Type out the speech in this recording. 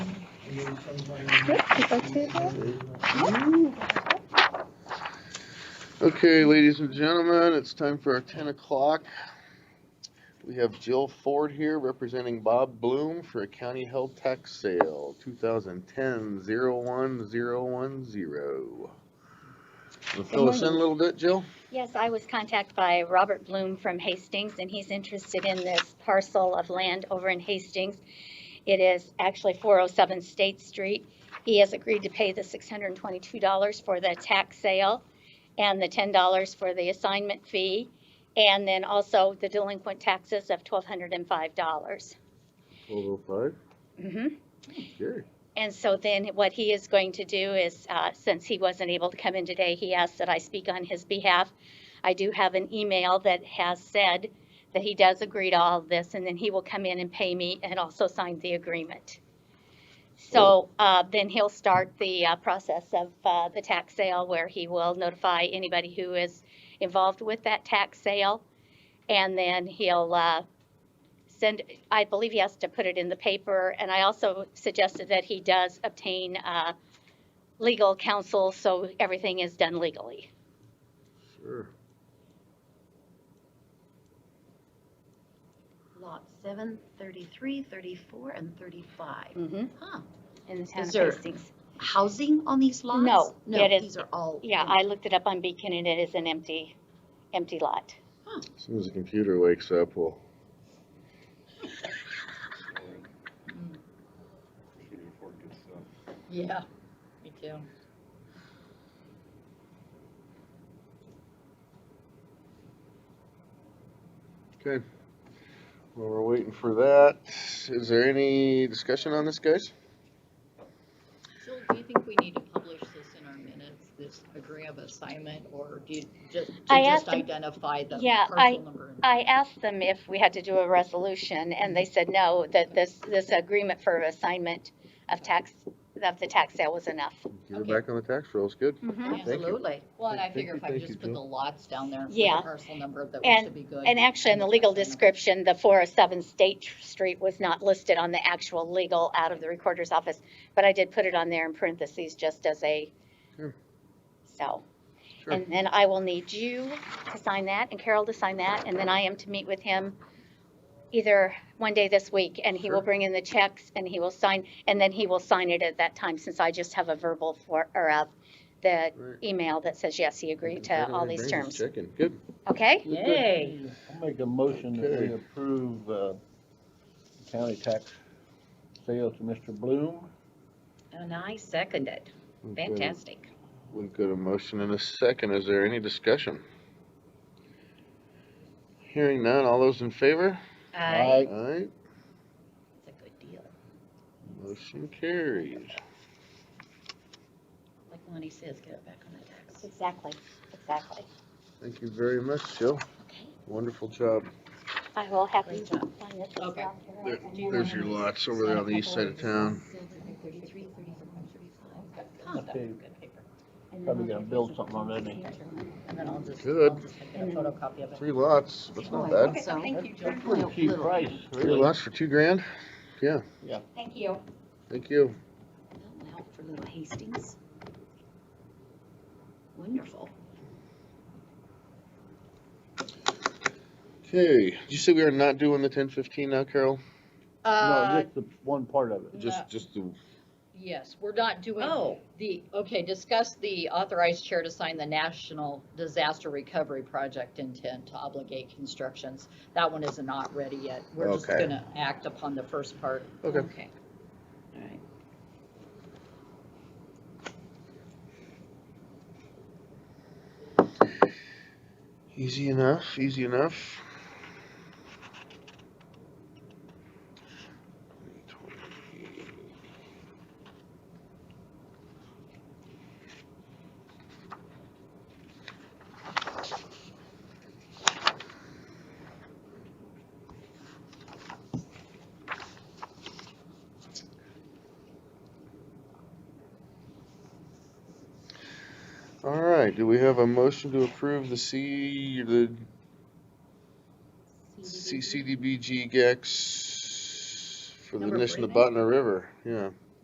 Okay, ladies and gentlemen, it's time for our ten o'clock. We have Jill Ford here representing Bob Bloom for a county held tax sale, 2010 thousand ten zero one zero one zero. Fill us in a little bit, Jill? Yes, I was contacted by Robert Bloom from Hastings, and he's interested in this parcel of land over in Hastings. It is actually 407 State Street. He has agreed to pay the $622 for the tax sale and the $10 for the assignment fee, and then also the delinquent taxes of $1,205. Twelve oh Mhm. five? Sure. And so then what he is going to do is, uh, since he wasn't able to come in today, he asked that I speak on his behalf. I do have an email that has said that he does agree to all of this, and then he will come in and pay me and also sign the agreement. So uh, then he'll start the uh, process of uh, the tax sale where he will notify anybody who is involved with that tax sale. And then he'll uh, send, I believe he has to put it in the paper, and I also suggested that he does obtain, uh, legal counsel, so everything is done legally. Sure. Lot seven, thirty-three, thirty-four, and thirty-five. Mm-hmm. Huh. In the town of Is there- Hastings. Housing on these lots? No, it is- these are all. Yeah, I looked it up on Beacon and it is an empty, empty lot. As soon as the computer wakes up, we'll. Yeah, me too. Okay. Well, we're waiting for that. Is there any discussion on this, guys? Jill, do you think we need to publish this in our minutes, this agree of assignment, or do you just, to I just asked him- identify the Yeah, I- parcel number? and- I asked them if we had to do a resolution and they said no, that this, this agreement for assignment of tax, of the tax sale was enough. You're Okay. back on the tax rolls, good. Mhm. Thank you. Absolutely. Well, and I Thank you, figure if I thank you, just put the Jill. lots down there with Yeah. the parcel number, that we should be good. And actually, in the legal Assignment. description, the 407 State Street was not listed on the actual legal out of the recorder's office, but I did put it on there in parentheses just as a, Sure. so. Sure. And then I will need you to sign that and Carol to sign that, and then I am to meet with him either one day this week, and he will Sure. bring in the checks and he will sign, and then he will sign it at that time, since I just have a verbal for, or a, the Right. email that says, yes, he Mm, agreed to all these terms, Checking, good. okay? Yay. I'll make a motion that Okay. we approve, uh, county tax sale to Mr. Bloom. And I second it. Okay, Fantastic. We've got a motion and a second. Is there any discussion? Hearing none. All those in favor? Uh, Aye. Aye. It's a good deal. Motion carries. Like Lonnie says, get it back on the tax. Exactly, exactly. Thank you very much, Jill. Okay. Wonderful job. I will have you Great job. sign this as Okay. well. There- Carol. There's your lots over there on the east side of town. Thirty-three, thirty-four, thirty-five. Huh. Okay. Good paper. Probably gonna build something on that, ain't And then I'll just, I'll Good. just make a photocopy of it. Three lots, that's not Oh, bad. Okay, thank you, Jill. That's pretty cheap price, Three really. lots for two grand? Thank you. Thank you. Well, for Little Hastings. Wonderful. Okay, did you say we are not doing the ten fifteen now, Carol? No, Uh, just the one part of it. Just, No. just the, yes, we're not doing Oh, The, okay, discuss the authorized chair to sign the National Disaster Recovery Project intent to obligate constructions. That one is not ready yet. We're just Okay. gonna act upon the first part. okay. okay. All right. Easy enough, easy enough. All right, do we have a motion to approve the C, the CCDBG GEX for the Number Nishna three. River, yeah.